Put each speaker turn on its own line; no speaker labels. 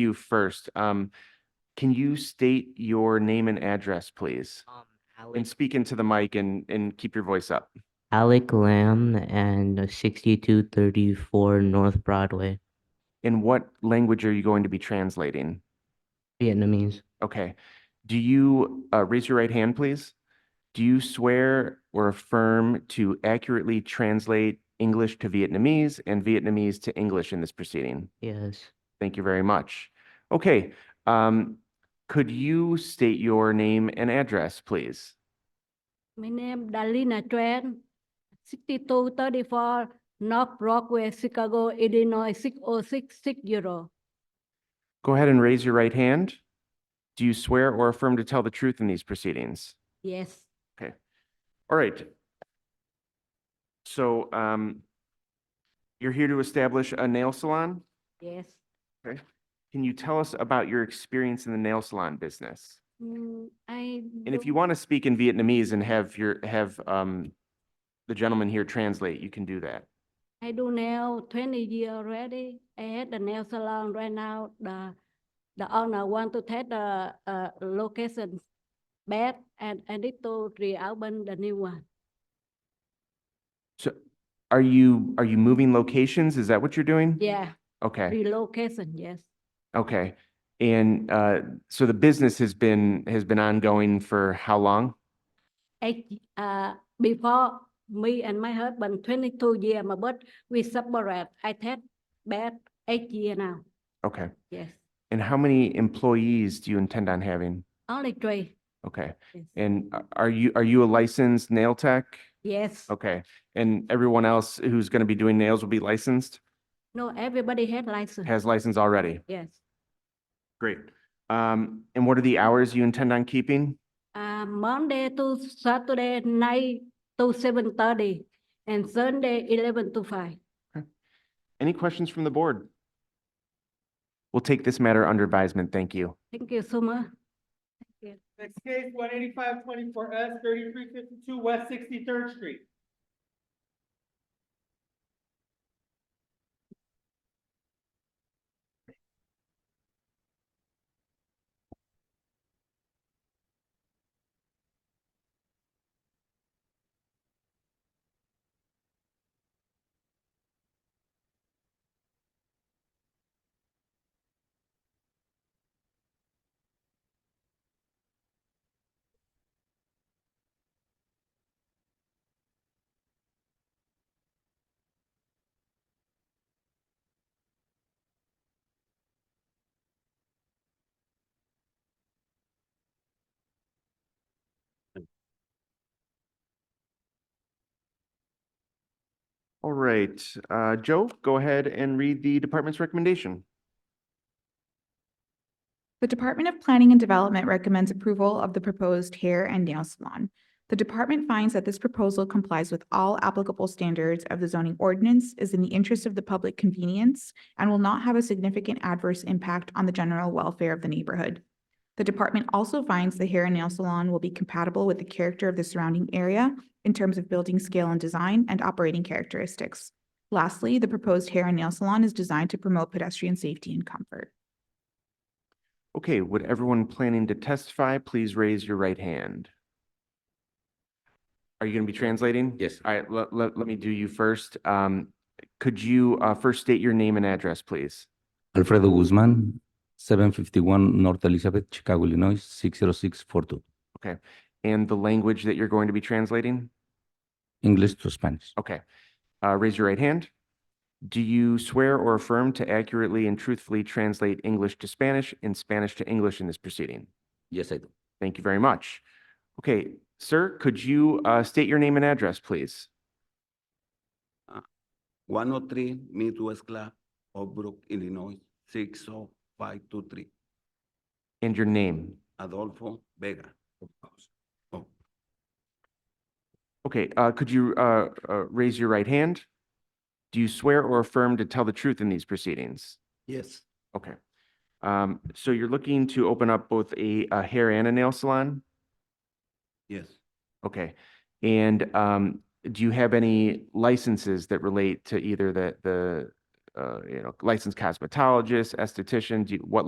you first. Um, can you state your name and address, please?
Um,
And
Alec,
speak into the mic and, and keep your voice up.
Alec Lamb and sixty-two thirty-four North Broadway,
In what language are you going to be translating?
Vietnamese.
Okay. Do you, uh, raise your right hand, please? Do you swear or affirm to accurately translate English to Vietnamese and Vietnamese to English in this proceeding?
Yes,
Thank you very much. Okay, um, could you state your name and address, please?
My name Dalina Tran, sixty-two thirty-four North Broadway, Chicago, Illinois, six oh six six zero.
Go ahead and raise your right hand. Do you swear or affirm to tell the truth in these proceedings?
Yes,
All right. So, um, you're here to establish a nail salon?
yes.
Can you tell us about your experience in the nail salon business?
Mm, I.
And if
don't-
you want to speak in Vietnamese and have your, have, um, the gentleman here translate, you can do that.
I do nail twenty year already. I had the nail salon right now. The, the owner want to take the, uh, location bad and I need to reopen the new one.
So are you, are you moving locations? Is that what you're doing?
Yeah,
Okay,
relocation, yes.
okay. And, uh, so the business has been, has been ongoing for how long?
I, uh, before me and my husband twenty-two year mà but we separate. I take bed eight year now.
Okay.
Yes,
And how many employees do you intend on having?
only three.
Okay.
Yes.
And a- are you, are you a licensed nail tech?
Yes.
Okay. And everyone else who's going to be doing nails will be licensed,
No, everybody had license.
has license already?
Yes.
Great. Um, and what are the hours you intend on keeping?
Uh, Monday to Saturday nine to seven thirty and Sunday eleven to five.
Any questions from the board? We'll take this matter under advisement. Thank you.
Thank you so much.
Next case, one eighty-five twenty-four S, thirty-three fifty-two West Sixty-third Street.
All right, uh, Joe, go ahead and read the department's recommendation.
The Department of Planning and Development recommends approval of the proposed hair and nail salon. The department finds that this proposal complies with all applicable standards of the zoning ordinance, is in the interest of the public convenience, and will not have a significant adverse impact on the general welfare of the neighborhood. The department also finds the hair and nail salon will be compatible with the character of the surrounding area in terms of building scale and design and operating characteristics. Lastly, the proposed hair and nail salon is designed to promote pedestrian safety and comfort.
Okay, would everyone planning to testify, please raise your right hand? Are you going to be translating?
Yes.
All right, let, let, let me do you first. Um, could you, uh, first state your name and address, please?
Alfredo Guzmán, seven fifty-one North Elizabeth, Chicago, Illinois, six zero six four two,
And the language that you're going to be translating?
English to Spanish.
Okay. Uh, raise your right hand. Do you swear or affirm to accurately and truthfully translate English to Spanish and Spanish to English in this proceeding?
Yes, I do.
Thank you very much. Okay, sir, could you uh, state your name and address, please?
one oh three Midwest Club, Oak Brook, Illinois, six oh five two three,
And your name?
Adolfo Vega. Oh,
Okay, uh, could you uh, uh, raise your right hand? Do you swear or affirm to tell the truth in these proceedings?
yes,
Okay. Um, So you're looking to open up both a a hair and a nail salon?
yes,
Okay, and um, do you have any licenses that relate to either the, the, uh, you know, licensed cosmetologist, esthetician? Do you, what